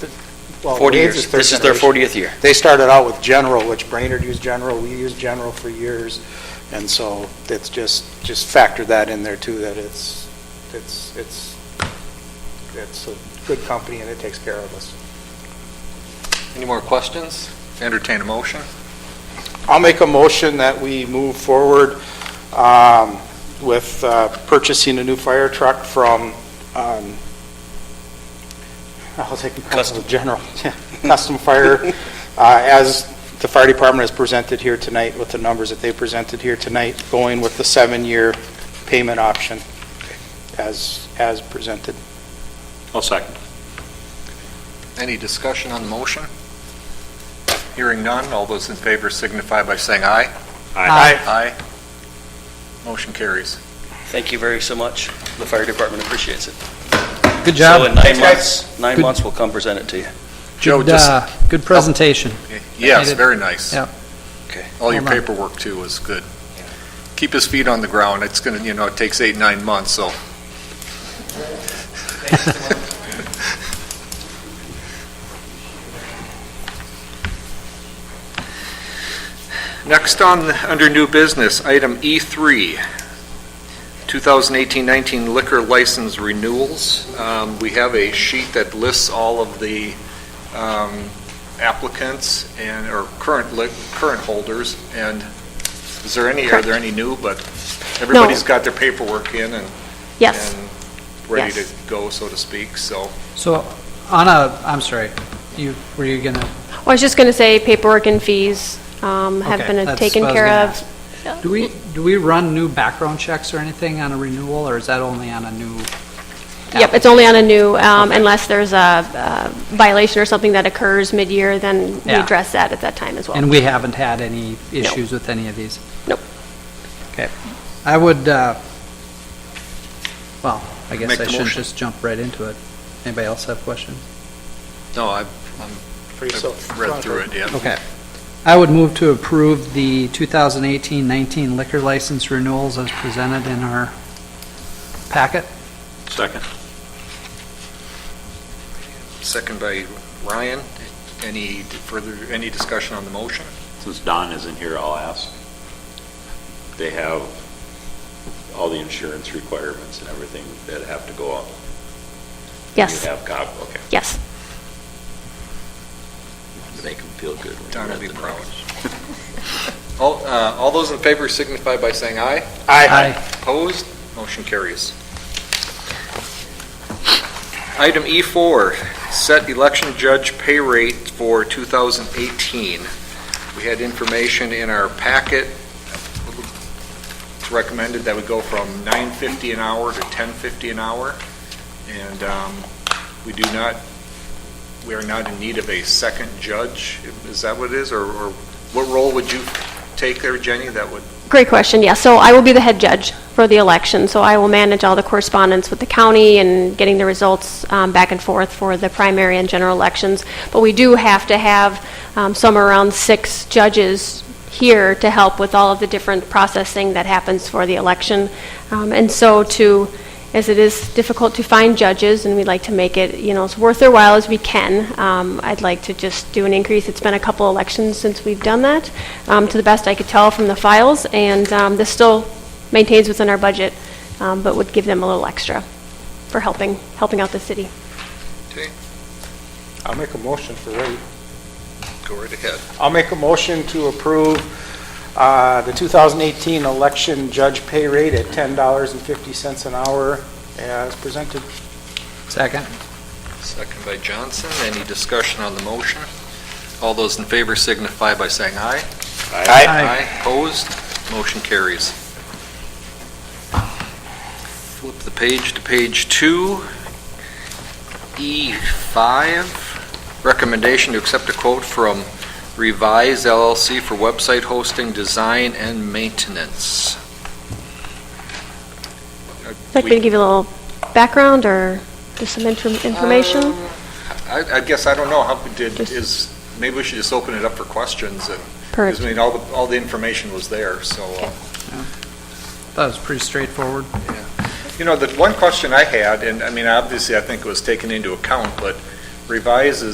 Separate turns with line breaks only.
well,
40
Wade's
years.
third
This is their
generation.
40th year.
They started out with General, which Brainerd used General, we used General for years, and so it's just, just factor that in there too, that it's, it's, it's, it's a good company and it takes care of us.
Any more questions? Entertain a motion.
I'll make a motion that we move forward um, with uh, purchasing a new fire truck from, um, I'll take it
Custom.
from General, yeah, Custom Fire, uh, as the fire department has presented here tonight with the numbers that they presented here tonight, going with the seven-year payment option as, as presented.
I'll second.
Any discussion on the motion? Hearing none, all those in favor signify by saying aye.
Aye.
Aye. Motion carries.
Thank you very so much. The fire department appreciates it. So in
Good job.
nine
Thanks, guys.
months, nine
Good-
months, we'll come present it to you.
Joe,
Good, uh, good presentation.
Yes,
Made it.
very nice.
Yep.
Okay. All your
Hold on.
paperwork too was good. Keep his feet on the ground. It's going to, you know, it takes eight, nine months, so. Next on, under new business, item E E3, 2018-19 liquor license renewals. Um, We have a sheet that lists all of the um, applicants and, or current, li- current holders, and is there any, are there any new, but everybody's got their paperwork in and.
Yes,
and Ready to
Yes.
go, so to speak, so.
So on a, I'm sorry, you, were you gonna,
Well, I was just going to say paperwork and fees um, have
Okay,
been
that's
taken
what I was
care
gonna
of.
ask. do we, do we run new background checks or anything on a renewal, or is that only on a new?
Yep, it's only on a new, um, unless there's a uh, violation or something that occurs mid-year, then we
Yeah.
address that at that time as well.
And we haven't had any issues with any of these?
Nope.
Okay. I would, uh, well, I guess
Make
I
the
shouldn't
motion.
just jump right into it. Anybody else have questions?
No, I've
For
I've read through it, yeah.
Okay. I would move to approve the 2018-19 liquor license renewals as presented in our packet.
Second.
Second by Ryan. Any further, any discussion on the motion?
Since Don isn't here, I'll ask. They have all the insurance requirements and everything that have to go up.
Yes,
You have cop, okay.
yes.
Make them feel good. when you
Don will
read
be
the
proud.
numbers.
All, uh, all those in favor signify by saying aye.
Aye.
Opposed? Motion carries. Item E4, set election judge pay rate for 2018. We had information in our packet. It's recommended that we go from 9.50 an hour to 10.50 an hour. And um, we do not, we are not in need of a second judge. Is that what it is? Or or what role would you take there, Jenny, that would
Great question, yeah. So I will be the head judge for the election, so I will manage all the correspondence with the county and getting the results um, back and forth for the primary and general elections. But we do have to have um, somewhere around six judges here to help with all of the different processing that happens for the election. Um, And so to, as it is difficult to find judges, and we'd like to make it, you know, as worth their while as we can, um, I'd like to just do an increase. It's been a couple elections since we've done that, um, to the best I could tell from the files, and um, this still maintains within our budget, um, but would give them a little extra for helping, helping out the city.
I'll make a motion for Wade.
go right ahead?
I'll make a motion to approve uh, the 2018 election judge pay rate at $10.50 an hour as presented.
Second.
Second by Johnson. Any discussion on the motion? All those in favor signify by saying aye.
Aye.
Opposed? Motion carries. Flip the page to page two. E5, recommendation to accept a quote from Revise LLC for website hosting, design, and maintenance.
Would you like me to give you a little background or just some infor- information?
Um, I, I guess, I don't know, how, did,
Just-
is, maybe we should just open it up for questions, and,
Per-
because, I mean, all the, all the information was there, so. uh,
That was pretty straightforward.
You know, the one question I had, and, I mean, obviously, I think it was taken into account, but revises.